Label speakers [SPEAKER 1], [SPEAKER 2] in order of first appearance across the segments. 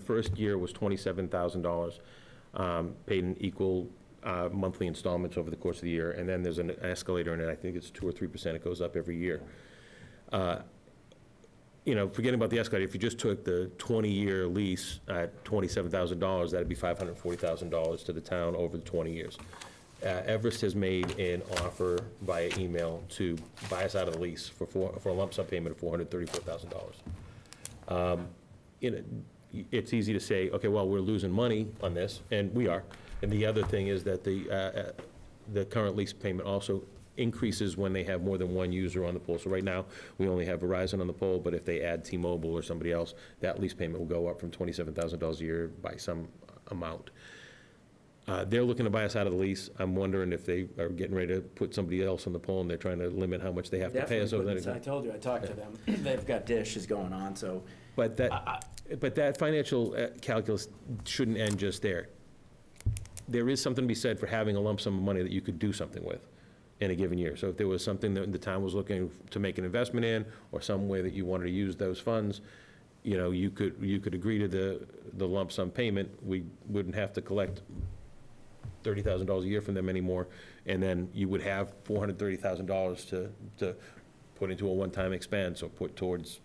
[SPEAKER 1] first year was $27,000, um, paid in equal uh, monthly installments over the course of the year, and then there's an escalator in it, I think it's 2 or 3%, it goes up every year. Uh, You know, forgetting about the escalator, if you just took the 20-year lease at $27,000, that'd be $540,000 to the town over the 20 years. Uh, Everest has made an offer via email to buy us out of the lease for four- for a lump sum payment of $434,000 you know, it's easy to say, okay, well, we're losing money on this, and we are. And the other thing is that the, uh, uh, the current lease payment also increases when they have more than one user on the pole. So right now, we only have Verizon on the pole, but if they add T-Mobile or somebody else, that lease payment will go up from twenty-seven thousand dollars a year by some amount. Uh, They're looking to buy us out of the lease. I'm wondering if they are getting ready to put somebody else on the pole, and they're trying to limit how much they have to pay us. over
[SPEAKER 2] Definitely,
[SPEAKER 1] that.
[SPEAKER 2] put- I told you, I talked to them, they've got dishes going on, so,
[SPEAKER 1] But that, but that financial uh, calculus shouldn't end just there. There is something to be said for having a lump sum of money that you could do something with in a given year. So if there was something that the town was looking to make an investment in, or some way that you wanted to use those funds, you know, you could, you could agree to the, the lump sum payment. We wouldn't have to collect thirty thousand dollars a year from them anymore, and then you would have four hundred thirty thousand dollars to, to put into a one-time expense or put towards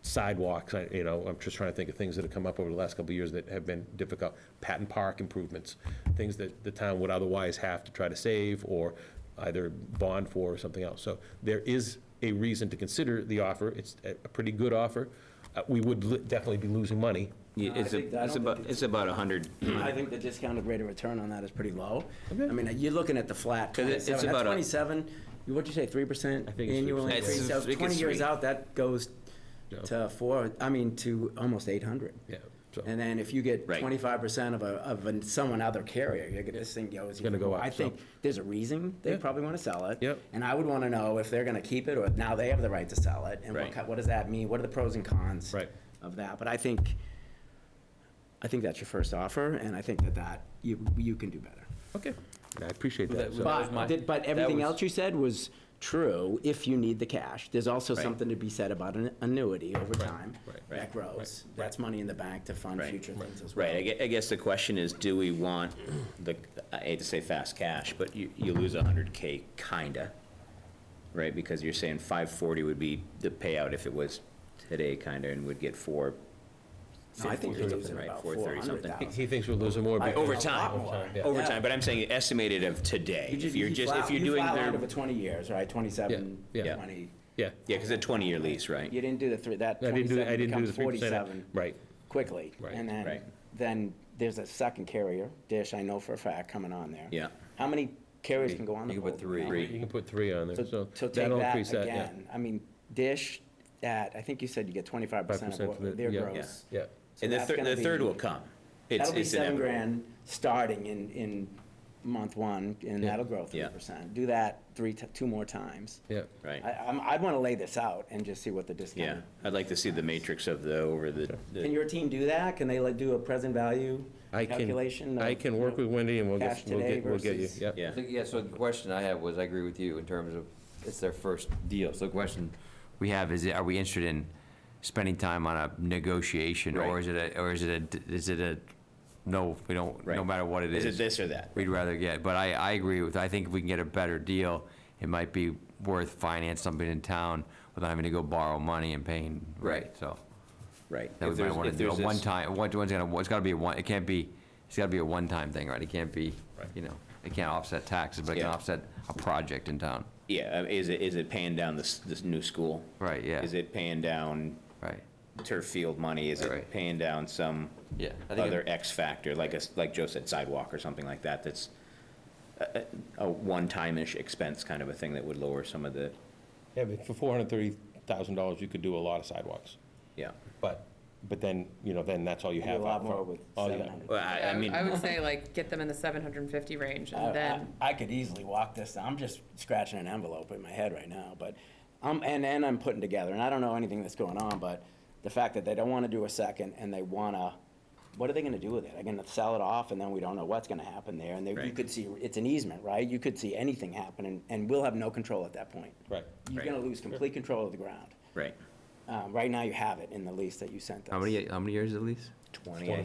[SPEAKER 1] sidewalks, I- you know, I'm just trying to think of things that have come up over the last couple of years that have been difficult. Patent Park improvements, things that the town would otherwise have to try to save or either bond for or something else. So there is a reason to consider the offer, it's a a pretty good offer. Uh, We would li- definitely be losing money,
[SPEAKER 2] No, I
[SPEAKER 3] It's,
[SPEAKER 2] think- I
[SPEAKER 3] a- it's
[SPEAKER 2] don't
[SPEAKER 3] about,
[SPEAKER 2] think
[SPEAKER 3] it's about 100,
[SPEAKER 1] Mm-hmm.
[SPEAKER 2] I think the discounted rate of return on that is pretty low. I mean, you're looking at the flat
[SPEAKER 3] 'Cause it- it's
[SPEAKER 2] twenty-seven, at
[SPEAKER 3] about a-
[SPEAKER 2] twenty-seven, you- what'd you say, three percent
[SPEAKER 1] I think it's
[SPEAKER 2] annual
[SPEAKER 1] 3%.
[SPEAKER 2] increase?
[SPEAKER 3] It's-
[SPEAKER 2] So
[SPEAKER 3] I think
[SPEAKER 2] twenty
[SPEAKER 3] it's
[SPEAKER 2] years
[SPEAKER 3] three.
[SPEAKER 2] out, that goes
[SPEAKER 1] Yeah.
[SPEAKER 2] to four, I mean, to almost eight hundred.
[SPEAKER 1] yeah, so.
[SPEAKER 2] And then if you get
[SPEAKER 3] Right.
[SPEAKER 2] twenty-five percent of a, of an- someone other carrier, you get, this thing goes.
[SPEAKER 1] gonna
[SPEAKER 2] even
[SPEAKER 1] go
[SPEAKER 2] more.
[SPEAKER 1] up,
[SPEAKER 2] I think
[SPEAKER 1] so.
[SPEAKER 2] there's a reason they
[SPEAKER 1] Yeah.
[SPEAKER 2] probably wanna sell it.
[SPEAKER 1] Yep.
[SPEAKER 2] And I would wanna know if they're gonna keep it, or now they have the right to sell it, and what,
[SPEAKER 3] Right.
[SPEAKER 2] ki- what does that mean? What are the pros and cons?
[SPEAKER 1] Right.
[SPEAKER 2] Of that, but I think, I think that's your first offer, and I think that that, you, you can do better.
[SPEAKER 1] Okay. I appreciate that.
[SPEAKER 3] That-
[SPEAKER 1] so-
[SPEAKER 3] was my-
[SPEAKER 2] But, did- but everything
[SPEAKER 3] was-
[SPEAKER 2] else you said was true, if you need the cash. There's also
[SPEAKER 3] Right.
[SPEAKER 2] something to be said about an annuity over time.
[SPEAKER 1] right,
[SPEAKER 2] That
[SPEAKER 3] right,
[SPEAKER 2] grows. That's money in the bank to fund
[SPEAKER 3] Right.
[SPEAKER 2] future things as well.
[SPEAKER 3] right, I gue- I guess the question is, do we want the, I hate to say fast cash, but you, you lose 100K, kinda, right? Because you're saying 540 would be the payout if it was today, kinda, and would get 450
[SPEAKER 2] No, I think
[SPEAKER 3] or
[SPEAKER 2] you're
[SPEAKER 3] something,
[SPEAKER 2] losing
[SPEAKER 3] right?
[SPEAKER 2] about
[SPEAKER 3] 430 something.
[SPEAKER 2] 400,000.
[SPEAKER 1] He thinks we're losing more.
[SPEAKER 2] I-
[SPEAKER 1] because-
[SPEAKER 3] Over
[SPEAKER 2] A lot more.
[SPEAKER 3] time,
[SPEAKER 1] Yeah.
[SPEAKER 3] over
[SPEAKER 2] Yeah.
[SPEAKER 3] time, but I'm saying estimated of today. If you're just, if you're doing
[SPEAKER 2] You fly out
[SPEAKER 3] their,
[SPEAKER 2] over 20 years, right, 27,
[SPEAKER 1] Yeah, yeah.
[SPEAKER 2] 20.
[SPEAKER 1] Yeah.
[SPEAKER 3] yeah, because a 20-year lease, right?
[SPEAKER 2] You didn't do the three, that
[SPEAKER 1] I didn't do,
[SPEAKER 2] 27
[SPEAKER 1] I didn't do
[SPEAKER 2] becomes
[SPEAKER 1] the three percent.
[SPEAKER 2] 47
[SPEAKER 1] Right,
[SPEAKER 2] quickly.
[SPEAKER 1] Right,
[SPEAKER 2] And then,
[SPEAKER 3] right.
[SPEAKER 2] then there's a second carrier, Dish, I know for a fact, coming on there.
[SPEAKER 3] Yeah.
[SPEAKER 2] How many carriers can go on the
[SPEAKER 4] You
[SPEAKER 2] boat?
[SPEAKER 4] can put three.
[SPEAKER 3] Three.
[SPEAKER 1] you can put three on there, so
[SPEAKER 2] So, so take
[SPEAKER 1] that'll increase that,
[SPEAKER 2] that
[SPEAKER 1] yeah.
[SPEAKER 2] again. I mean, Dish, at, I think you said you get 25%
[SPEAKER 1] 5%
[SPEAKER 2] of
[SPEAKER 1] for the-
[SPEAKER 2] what their
[SPEAKER 1] yeah.
[SPEAKER 2] gross.
[SPEAKER 1] Yeah,
[SPEAKER 2] So
[SPEAKER 3] And the
[SPEAKER 2] that's
[SPEAKER 3] third,
[SPEAKER 2] gonna
[SPEAKER 3] the third
[SPEAKER 2] be-
[SPEAKER 3] will come. It's-
[SPEAKER 2] That'll be
[SPEAKER 3] it's
[SPEAKER 2] seven
[SPEAKER 3] inevitable.
[SPEAKER 2] grand starting in, in month one, and
[SPEAKER 1] Yeah.
[SPEAKER 2] that'll grow three
[SPEAKER 3] Yeah.
[SPEAKER 2] percent. Do that three, ti- two more times.
[SPEAKER 1] yeah.
[SPEAKER 3] Right.
[SPEAKER 2] I, I'm, I'd wanna lay this out and just see what the
[SPEAKER 3] Yeah,
[SPEAKER 2] discount.
[SPEAKER 3] I'd like to see the matrix of the, over the, the-
[SPEAKER 2] Can your team do that? Can they like do a present value
[SPEAKER 1] I
[SPEAKER 2] calculation?
[SPEAKER 1] can, I
[SPEAKER 2] of,
[SPEAKER 1] can
[SPEAKER 2] you
[SPEAKER 1] work
[SPEAKER 2] know,
[SPEAKER 1] with Wendy and we'll
[SPEAKER 2] cash
[SPEAKER 1] get, we'll
[SPEAKER 2] today
[SPEAKER 1] get, we'll get you,
[SPEAKER 2] versus-
[SPEAKER 1] yeah.
[SPEAKER 4] I
[SPEAKER 3] yeah,
[SPEAKER 4] think, yeah, so the question I had was, I agree with you in terms of, it's their first deal. So the question we have is, are we interested in spending time on a negotiation? Or
[SPEAKER 3] Right.
[SPEAKER 4] is it a, or is it a, is it a, no, we don't, no
[SPEAKER 3] Right.
[SPEAKER 4] matter what it
[SPEAKER 3] is
[SPEAKER 4] is.
[SPEAKER 3] it this or that?
[SPEAKER 4] We'd rather get, but I, I agree with, I think if we can get a better deal, it might be worth finance something in town without having to go borrow money and paying, right,
[SPEAKER 3] Right.
[SPEAKER 4] so.
[SPEAKER 3] Right.
[SPEAKER 4] That
[SPEAKER 3] If
[SPEAKER 4] we might
[SPEAKER 3] there's-
[SPEAKER 4] wanna
[SPEAKER 3] if
[SPEAKER 4] do, a
[SPEAKER 3] there's this-
[SPEAKER 4] one-time, one, one's gonna, it's gotta be a one, it can't be, it's gotta be a one-time thing, right? It can't be, you know, it can't offset taxes, but it can
[SPEAKER 3] Yeah.
[SPEAKER 4] offset a project in town,
[SPEAKER 3] Yeah, uh, is it, is it paying down this, this new school?
[SPEAKER 4] Right, yeah.
[SPEAKER 3] Is it paying down
[SPEAKER 4] right?
[SPEAKER 3] turf field money? Is it
[SPEAKER 4] Right.
[SPEAKER 3] paying down some
[SPEAKER 4] Yeah. I think
[SPEAKER 3] other
[SPEAKER 4] it-
[SPEAKER 3] X factor, like a, s- like Joe said, sidewalk or something like that, that's a, a a one-time-ish expense kind of a thing that would lower some of the,
[SPEAKER 1] Yeah, but for four hundred thirty thousand dollars, you could do a lot of sidewalks,
[SPEAKER 3] yeah.
[SPEAKER 1] but, but then, you know, then that's all you
[SPEAKER 2] do
[SPEAKER 1] have.
[SPEAKER 2] A lot
[SPEAKER 1] out
[SPEAKER 2] more
[SPEAKER 1] front.
[SPEAKER 2] with
[SPEAKER 1] All you
[SPEAKER 2] seven
[SPEAKER 1] got.
[SPEAKER 2] hundred.
[SPEAKER 3] Well, I, I mean,
[SPEAKER 5] I would say like get them in the seven hundred and fifty range
[SPEAKER 2] I- I-
[SPEAKER 5] and then,
[SPEAKER 2] I could easily walk this, I'm just scratching an envelope in my head right now, but, um, and, and I'm putting together, and I don't know anything that's going on, but the fact that they don't wanna do a second and they wanna, what are they gonna do with it? Are they gonna sell it off and then we don't know what's gonna happen there? And they, you
[SPEAKER 3] Right.
[SPEAKER 2] could see, it's an easement, right? You could see anything happen and, and we'll have no control at that point.
[SPEAKER 1] Right.
[SPEAKER 2] You're
[SPEAKER 3] Right.
[SPEAKER 2] gonna lose complete control of the ground. Um,
[SPEAKER 3] right,
[SPEAKER 6] uh, right now you have it in the lease that you sent us.
[SPEAKER 2] How many, how many years is the lease?
[SPEAKER 4] Twenty, I